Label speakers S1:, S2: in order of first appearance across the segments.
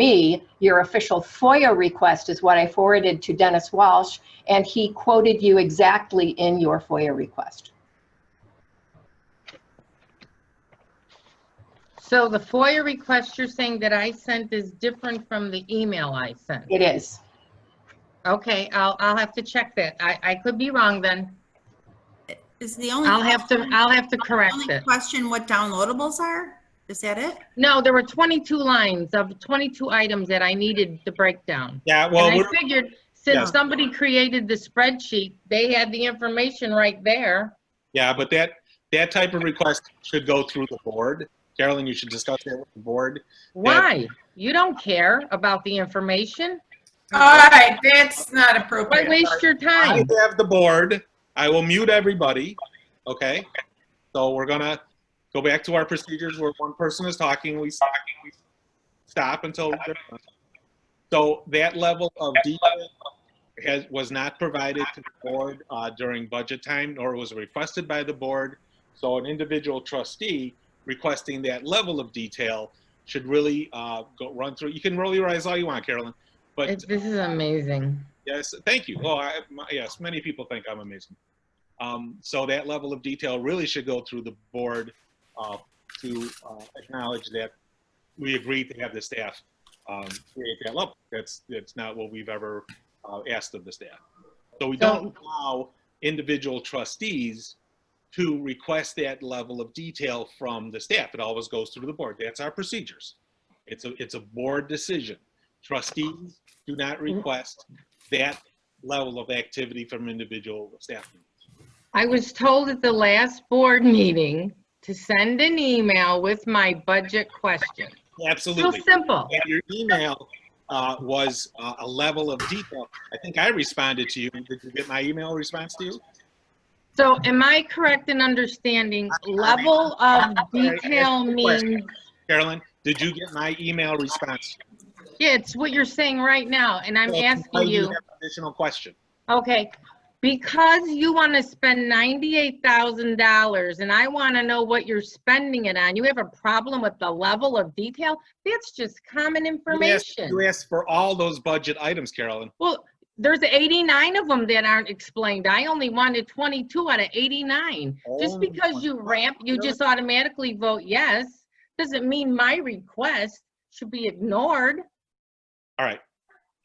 S1: me, your official FOIA request is what I forwarded to Dennis Walsh, and he quoted you exactly in your FOIA request.
S2: So the FOIA request you're saying that I sent is different from the email I sent?
S1: It is.
S2: Okay, I'll, I'll have to check that. I, I could be wrong then.
S3: Is the only.
S2: I'll have to,
S3: question-
S2: I'll have to correct
S3: Only
S2: it.
S3: question what downloadables are? Is that it?
S2: No, there were 22 lines of 22 items that I needed to break down.
S4: Yeah, well,
S2: And I
S4: we're-
S2: figured
S4: Yeah.
S2: since somebody created the spreadsheet, they had the information right there.
S4: yeah, but that, that type of request should go through the board. Carolyn, you should discuss that with the board.
S2: Why? You don't care about the information?
S5: All right, that's not
S2: Why
S5: appropriate.
S2: waste your
S4: I
S2: time?
S4: have the board. I will mute everybody, okay? So we're gonna go back to our procedures where one person is talking, we stop, we stop until. they're done. So that level of detail has, was not provided to the board uh, during budget time, nor was requested by the board. So an individual trustee requesting that level of detail should really uh, go, run through, you can roll your eyes all you want, Carolyn, but.
S2: It's- This is amazing.
S4: Yes, thank you. Oh, I, my, yes, many people think I'm amazing. Um, so that level of detail really should go through the board uh, to uh, acknowledge that we agreed to have the staff um, create that level. That's that's not what we've ever uh, asked of the staff. So we don't allow individual trustees to request that level of detail from the staff. It always goes through the board. That's our procedures. It's a it's a board decision. Trustees do not request that level of activity from individual staff members.
S2: I was told at the last board meeting to send an email with my budget question. So
S4: Absolutely.
S2: simple.
S4: And your email uh, was uh, a level of detail. I think I responded to you. Did you get my email response to you?
S2: So am I correct in understanding level of detail means,
S4: Carolyn, did you get my email response?
S2: yeah, it's what you're saying right now, and I'm
S4: So,
S2: asking
S4: you
S2: you,
S4: have an Additional question.
S2: okay, because you want to spend ninety-eight thousand dollars and I want to know what you're spending it on, you have a problem with the level of detail? That's just common
S4: You asked-
S2: information.
S4: You asked for all those budget items, Carolyn.
S2: Well, there's 89 of them that aren't explained. I only wanted 22 out of 89. Just
S4: Only
S2: because
S4: one.
S2: you ramp, you just automatically vote yes, doesn't mean my request should be ignored.
S4: All right.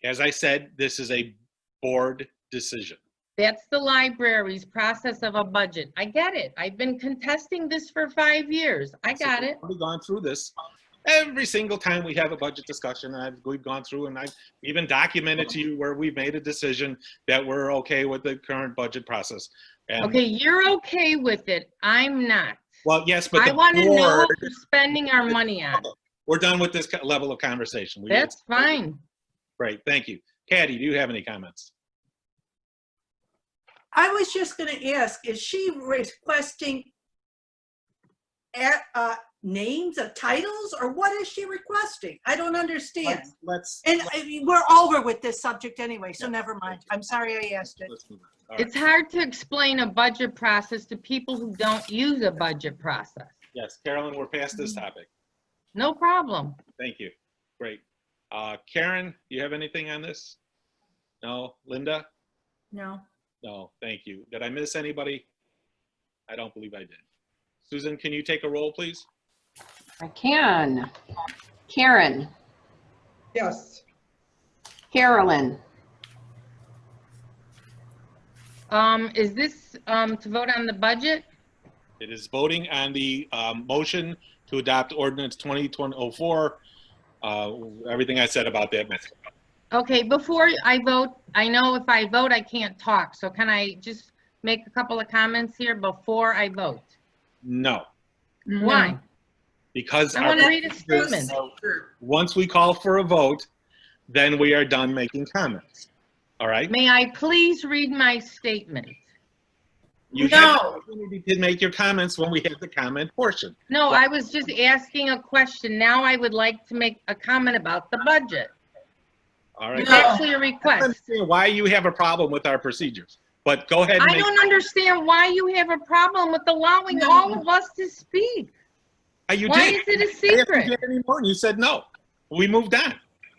S4: As I said, this is a board decision.
S2: That's the library's process of a budget. I get it. I've been contesting this for five years. I
S4: So
S2: got it.
S4: We've already gone through this every single time we have a budget discussion, and I've, we've gone through, and I've even documented to you where we've made a decision that we're okay with the current budget process. And-
S2: Okay, you're okay with it. I'm not.
S4: Well, yes, but
S2: I
S4: the
S2: want to know what
S4: board,
S2: we're spending our money on.
S4: we're done with this co- level of conversation. We-
S2: That's fine.
S4: Great, thank you. Patty, do you have any comments?
S6: I was just gonna ask, is she requesting at, uh, names of titles or what is she requesting? I don't understand.
S4: Let's- Let's.
S6: And I mean, we're over with this subject anyway, so never mind. I'm sorry I asked it.
S4: let's move on. All right.
S2: It's hard to explain a budget process to people who don't use a budget process.
S4: Yes, Carolyn, we're past this
S2: Mm-hmm.
S4: topic.
S2: No problem.
S4: Thank you. Great. Uh, Karen, you have anything on this? No? Linda?
S3: No.
S4: No, thank you. Did I miss anybody? I don't believe I did. Susan, can you take a roll, please?
S1: I can. Karen,
S7: Yes,
S1: Carolyn,
S2: Um, is this, um, to vote on the budget?
S4: It is voting on the um, motion to adopt ordinance 2004. Uh, Everything I said about that. matter.
S2: Okay, before I vote, I know if I vote, I can't talk, so can I just make a couple of comments here before I vote?
S4: No,
S2: Why?
S4: because.
S2: I
S4: our
S2: wanna read a
S4: procedures-
S2: statement.
S4: Once we call for a vote, then we are done making comments. All right?
S2: May I please read my statement?
S4: You have the
S5: No.
S4: opportunity to make your comments when we have the comment portion.
S2: No, I was just asking a question. Now I would like to make a comment about the budget.
S4: All right?
S2: It's
S5: No.
S2: actually a
S4: I
S2: request.
S4: understand why you have a problem with our procedures, but go ahead and
S2: I
S4: make.
S2: don't understand why you have a problem with allowing all of us to speak.
S4: Uh, You
S2: Why is
S4: did.
S2: it a
S4: I asked if you
S2: secret?
S4: had any more, and you said no. We moved on.